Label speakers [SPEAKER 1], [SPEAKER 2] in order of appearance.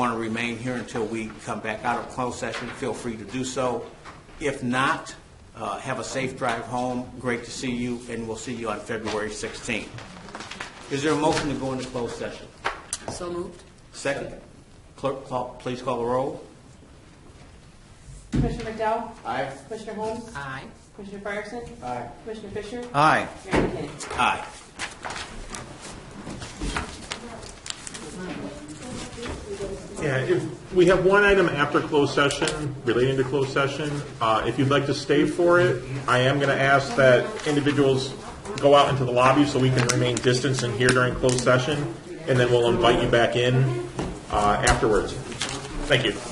[SPEAKER 1] want to remain here until we come back out of closed session, feel free to do so. If not, uh, have a safe drive home. Great to see you, and we'll see you on February 16th. Is there a motion to go into closed session?
[SPEAKER 2] So moved.
[SPEAKER 1] Second? Clerk, call- please call the roll.
[SPEAKER 3] Commissioner McDowell?
[SPEAKER 1] Aye.
[SPEAKER 3] Commissioner Holmes?
[SPEAKER 2] Aye.
[SPEAKER 3] Commissioner Fryerson?
[SPEAKER 1] Aye.
[SPEAKER 3] Commissioner Fisher?
[SPEAKER 1] Aye.
[SPEAKER 3] Mayor McKinney?
[SPEAKER 1] Aye.
[SPEAKER 4] Yeah, if, we have one item after closed session, relating to closed session. Uh, if you'd like to stay for it, I am gonna ask that individuals go out into the lobby so we can remain distanced in here during closed session, and then we'll invite you back in, uh, afterwards. Thank you.